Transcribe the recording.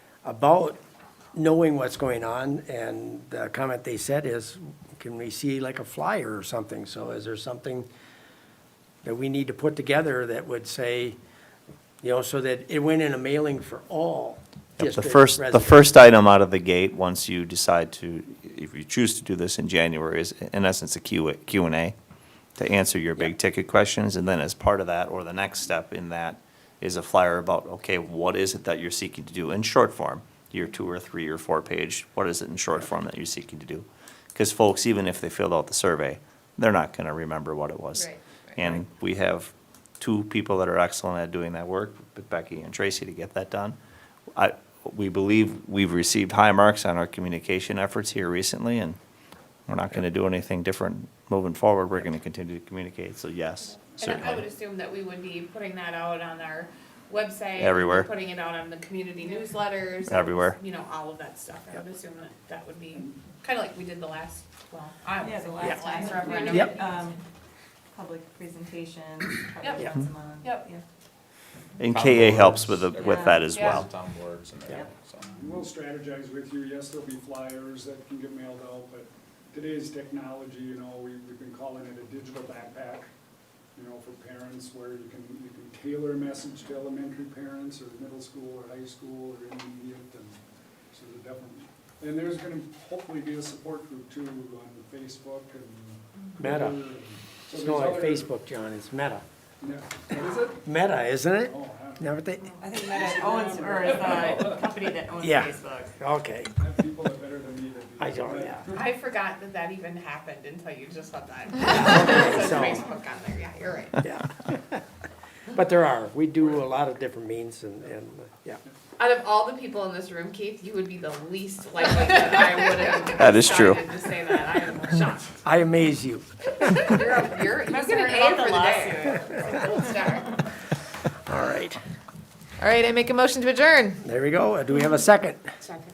about knowing what's going on, and the comment they said is, can we see like a flyer or something? So is there something that we need to put together that would say, you know, so that it went in a mailing for all Yep, The district first, the residents? first item out of the gate, once you decide to, if you choose to do this in January, is in essence a Q, Q and A to answer your big ticket questions, and then as part of that, or the next step in that, is a flyer about, okay, what is it that you're seeking to do in short form? Your two or three or four page, what is it in short form that you're seeking to do? Because folks, even if they filled out the survey, they're not gonna remember what it was. Right, right. And we have two people that are excellent at doing that work, Becky and Tracy, to get that done. I, we believe we've received high marks on our communication efforts here recently, and we're not gonna do anything different moving forward. We're gonna continue to communicate, so yes, And I would certainly. assume that we would be putting that out on our website. Everywhere. Putting it out on the community newsletters. Everywhere. You know, all of that stuff. I would assume that that would be kind of like we did the last, well, I Yeah, was the the last time. last referendum. we Yep. did, um, Public presentations, probably Yep. once a month. Yep. yeah. And KA helps with, the- with that as Yeah. well. Town boards and everything, so. We'll strategize with you. Yes, there'll be flyers that can get mailed out, but today's technology, you know, we, we've been calling it a digital backpack, you know, for parents where you can, you can tailor a message to elementary parents or middle school or high school or intermediate and so the definitely. And there's gonna hopefully be a support group too on Facebook and. Meta. Twitter and- so It's not like there's Facebook, John, it's Meta. other- Yeah. What is it? Meta, isn't it? Oh, I don't know. Never they, I think Meta owns, or is the company that owns Yeah. Facebook. okay, I have people that are better than me to do I that, don't, but- yeah. I forgot that that even happened until you just said that. Okay, It says so- Facebook on there, yeah, you're right. Yeah. But there are, we do a lot of different means and, and, yeah. Out of all the people in this room, Keith, you would be the least likely that I would have. That is true. decided To say that, I am shocked. I amaze you. You're, up- you're, you get an A for the day. Gold star. All right. All right, I make a motion to adjourn. There we go. Do we have a second? Second.